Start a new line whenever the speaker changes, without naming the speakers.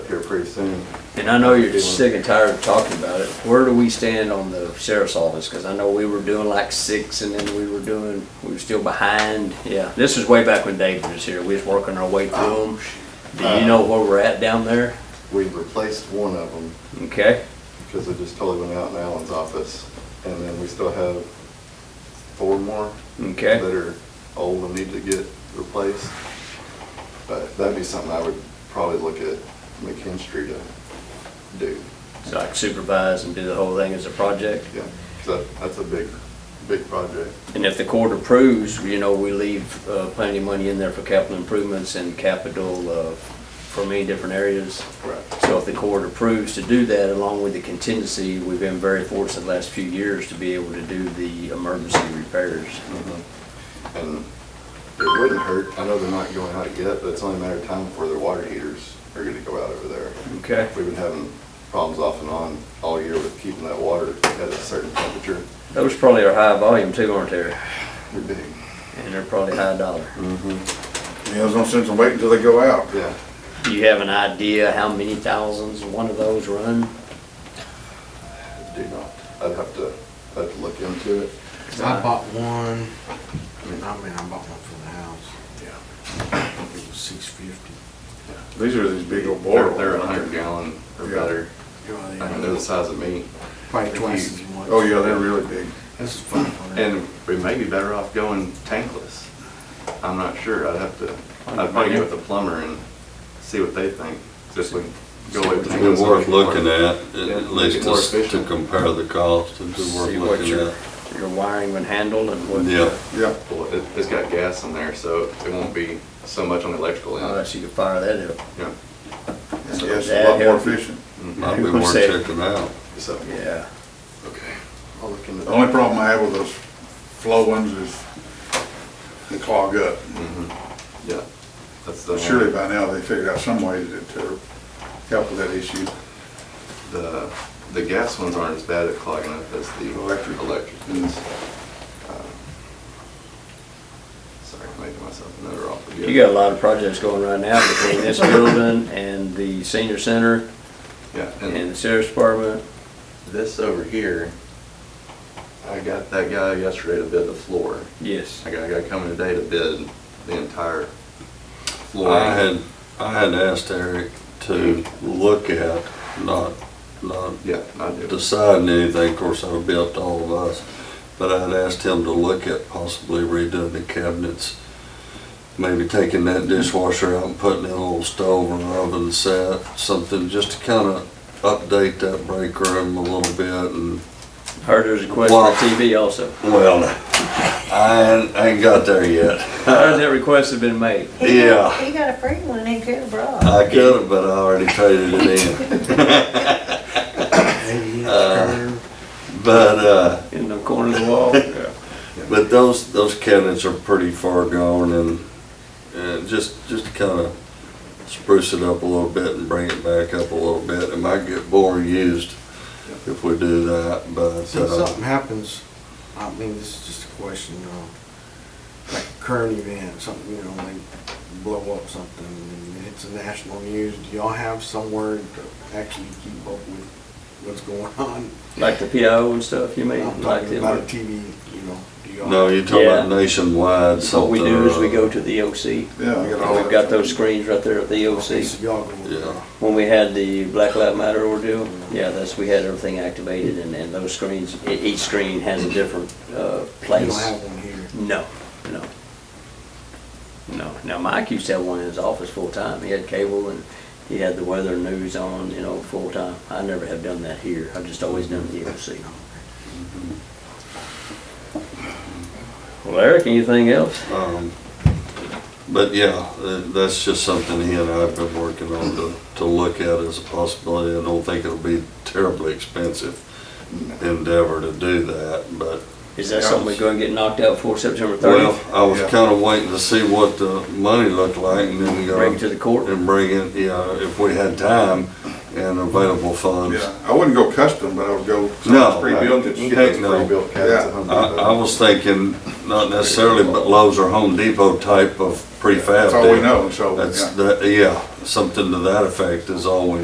pretty soon.
And I know you're just sick and tired of talking about it. Where do we stand on the sheriff's office? Because I know we were doing like six and then we were doing, we were still behind. Yeah, this is way back when David was here. We was working our way through them. Oh, Do you know where we're at down there?
Um, uh, We replaced one of them
Okay,
because it just totally went out in Alan's office. And then we still have four more that
okay.
are old and need to get replaced. But that'd be something I would probably look at McKinstry to do.
So I can supervise and do the whole thing as a project.
Yeah, 'cause that, that's a big, big project.
And if the court approves, you know, we leave uh, plenty of money in there for capital improvements and capital uh, for many different areas.
Right.
So if the court approves to do that, along with the contingency, we've been very fortunate the last few years to be able to do the emergency repairs.
Mm-hmm. And it wouldn't hurt, I know they're not going out yet, but it's only a matter of time before their water heaters are gonna go out over there.
Okay.
We've been having problems off and on all year with keeping that water at a certain temperature.
Those probably are high volume too, aren't they?
They're big.
And they're probably high dollar.
Yeah, there's no sense in waiting until they go out.
Yeah,
Do you have an idea how many thousands one of those run?
I do not. I'd have to, I'd have to look into it.
Cause I bought one, I mean, I mean, I bought one for the house. Yeah. It was six fifty.
These are these big old
They're,
boilers.
they're a hundred gallon or
Yeah.
better. I mean, they're the size of me.
Probably twice as much.
Oh, yeah, they're really big.
This is five hundred.
And we may be better off going tankless. I'm not sure. I'd have to, I'd probably get with the plumber and see what they think. Just like go away.
It'd be worth looking at,
Yeah, make
at
it
least
more
to to
efficient.
compare the cost, it'd be worth
See what
looking
your,
at.
your wiring would handle and what?
Yeah,
Yeah.
Well, it, it's got gas in there, so it won't be so much on the electrical end.
Unless you could fire that up.
Yeah.
Yes, it's a lot more efficient.
might be
Who
worth
said-
checking out.
So,
Yeah.
okay. I'll look into
The
that.
only problem I have with those flow ones is they clog up.
Yeah. That's the.
Surely by now they figured out some way to, to help with that issue.
The, the gas ones aren't as bad at clogging up as the.
Electric. Mm-hmm.
Electric is. Um, Sorry, I'm making myself another offer.
You got a lot of projects going right now between this building and the senior center
Yeah,
and the
and
sheriff's department.
this over here, I got that guy yesterday to bid the floor.
Yes.
I got a guy coming today to bid the entire floor.
I had, I had asked Eric to look at, not, not
Yeah, I do.
deciding anything, of course, that would be up to all of us. But I'd asked him to look at possibly redoing the cabinets, maybe taking that dishwasher out and putting in a little stove or oven set, something, just to kind of update that break room a little bit and
Heard there's a request for a TV also.
Well, I ain't, I ain't got there yet.
I heard that request had been made.
He got-
Yeah.
He got a free one in Coon Brook.
I could have, but I already traded it in.
Eighty inch
uh,
curve.
But, uh,
In the corner of the wall.
but those, those cabinets are pretty far gone and, and just, just to kind of spruce it up a little bit and bring it back up a little bit. It might get more used if we do that, but,
So if
uh,
something happens, I mean, this is just a question, you know, like a current event, something, you know, like blow up something and it's a national news, do y'all have somewhere to actually keep up with what's going on?
Like the PIO and stuff, you mean?
I'm
Like
talking about a
them.
TV, you know, do y'all?
no, you're talking about
Yeah.
nationwide something. uh,
What we do is
or
we go
other.
to the E EOC.
Yeah. we got all
We've
that.
got those screens right there at the
Okay,
EOC.
so y'all go with
Yeah.
When we had the Black Lives Matter ordeal, yeah, that's, we had everything activated and, and those screens, e- each screen has a different, uh,
You don't
place.
have one here.
No, no. No. Now, Mike used to have one in his office full time. He had cable and he had the weather news on, you know, full time. I never have done that here. I've just always done the E EOC. Well, Eric, anything else?
Um, But yeah, tha- that's just something he and I have been working on to, to look at as a possibility. I don't think it'll be terribly expensive endeavor to do that, but,
Is that something we're gonna get knocked out before September
well,
thirtieth?
I was
Yeah.
kinda waiting to see what the money looked like and then go.
Bring it to the court?
And bring it, yeah, if we had time and available funds.
Yeah, I wouldn't go custom, but I would go. something
Um, No,
Pre-built that you
heck
can-
It's
no.
pre-built cabinets at Home
I,
Depot.
I was thinking, not necessarily, but Lowe's or Home Depot type of prefab.
That's all we
deal.
know, so. yeah.
That's, that- yeah, something to that effect is all we